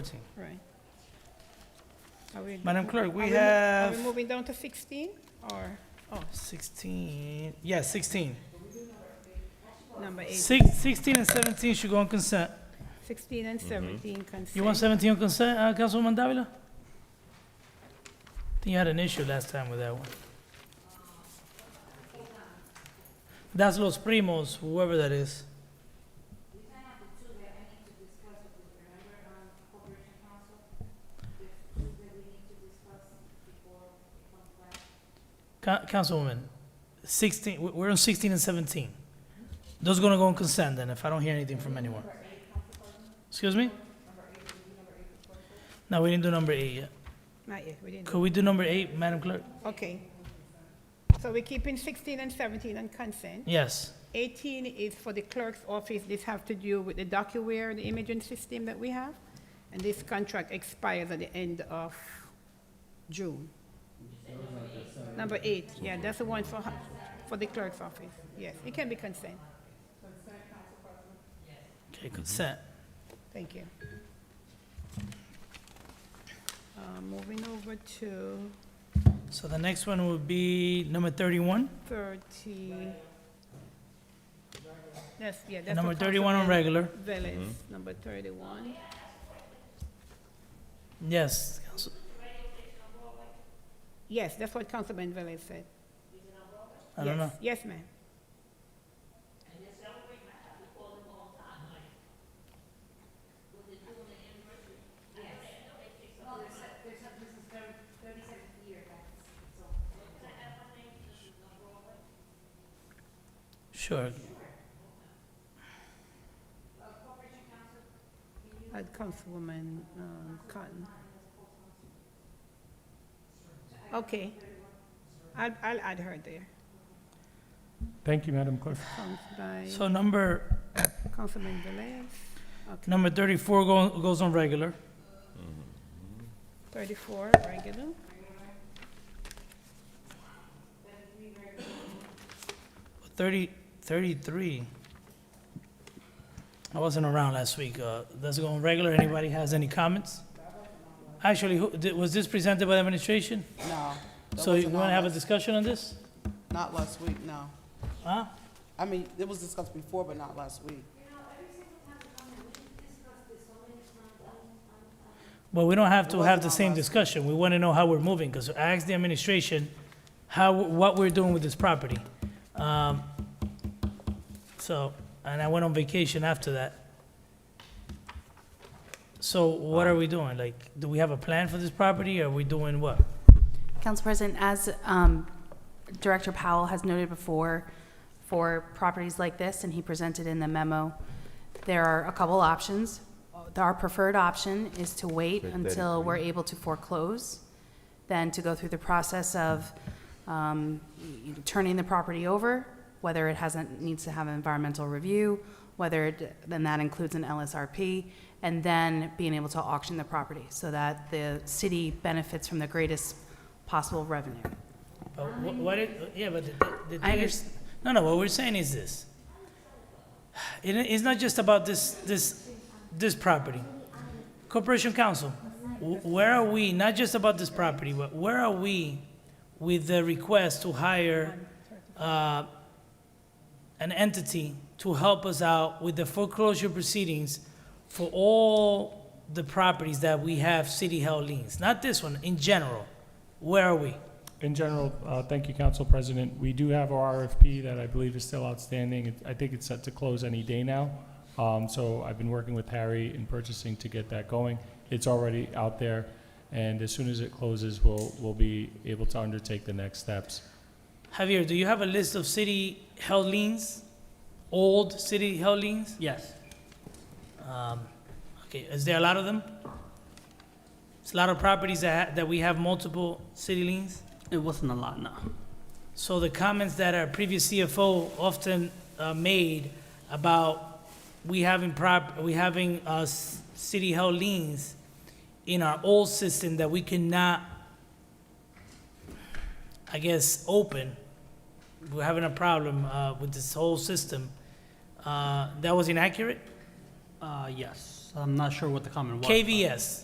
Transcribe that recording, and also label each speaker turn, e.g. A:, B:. A: Right. Are we-
B: Madam Clerk, we
A: are mo- Are we
B: have
A: moving down to 16 or, oh,
B: 16, yeah, 16.
A: number 8?
B: Six- 16 and 17 should go on consent.
A: 16 and 17
B: Mm-hmm. You want
A: consent.
B: 17 on consent, uh, Councilwoman Davila? I think you had an issue last time with that one. That's Los Primos, whoever that is. Coun- Councilwoman, 16, we- we're on 16 and 17. Those gonna go on consent then, if I don't hear anything from anyone. Excuse me? No, we didn't do number eight yet.
A: Not yet, we didn't.
B: Could we do number eight, Madam Clerk?
A: Okay. So we're keeping 16 and 17 on consent.
B: Yes.
A: 18 is for the clerk's office. This has to do with the DocuWare, the imaging system that we have. And this contract expires at the end of June. Number eight, yeah, that's the one for, ho- for the clerk's office. Yes, it can be consent.
B: Okay, consent.
A: Thank you. Uh, Moving over to
B: So the next one would be number thirty-one,
A: 30. That's, yeah,
B: and
A: that's. for
B: number thirty-one on
A: Councilman
B: regular.
A: Velez, number 31.
B: Yes, Council-
A: Yes, that's what Councilman Velez said.
B: I don't
A: Yes.
B: know.
A: Yes, ma'am.
B: Sure.
A: At Uh, Councilwoman um, Cotton. Okay. I'll, I'll add her there.
C: Thank you, Madam Clerk.
A: Sounds by
B: So number,
A: Councilman Velez. Okay,
B: number thirty-four go, goes on regular.
A: 34, regular.
B: Thirty, thirty-three. I wasn't around last week. Uh, that's going regular. Anybody has any comments? Actually, who, did- was this presented by the administration?
D: No. that
B: So you
D: wasn't
B: wanna
D: on
B: have a
D: last-
B: discussion on this?
D: Not last week, no.
B: Huh?
D: I mean, it was discussed before, but not last week.
B: But we don't have
D: It
B: to
D: wasn't
B: have the
D: on
B: same
D: last-
B: discussion. We want to know how we're moving, because I asked the administration how, what we're doing with this property. Um, So, and I went on vacation after that. So what are we doing? Like, do we have a plan for this property? Are we doing what?
E: Council President, as um, Director Powell has noted before, for properties like this, and he presented in the memo, there are a couple options. Our preferred option is to wait until we're able to foreclose, then to go through the process of um, y- y- turning the property over, whether it hasn't, needs to have an environmental review, whether, it- then that includes an LSRP, and then being able to auction the property, so that the city benefits from the greatest possible revenue.
B: But Uh, wh- What, it- yeah, but the- the, the
E: I
B: thing is, no, no, what we're saying is this. It, i- it's not just about this, this, this property. Corporation Council, wh- where are we, not just about this property, but where are we with the request to hire, uh, an entity to help us out with the foreclosure proceedings for all the properties that we have city-held liens? Not this one, in general. Where are we?
C: In general, uh, thank you, Council President. We do have our RFP that I believe is still outstanding. It- I think it's set to close any day now. Um, So I've been working with Harry in purchasing to get that going. It's already out there, and as soon as it closes, we'll, we'll be able to undertake the next steps.
B: Javier, do you have a list of city held liens? Old city held liens?
F: Yes,
B: Um, okay, is there a lot of them? It's a lot of properties that, ha- that we have multiple city liens?
F: it wasn't a lot, no.
B: So the comments that our previous CFO often uh, made about we having prop, we having uh, s- city held liens in our old system that we cannot, I guess, open. We're having a problem uh, with this whole system. Uh, that was inaccurate.
F: Uh, yes. I'm not sure what the comment was. but-
B: KVS.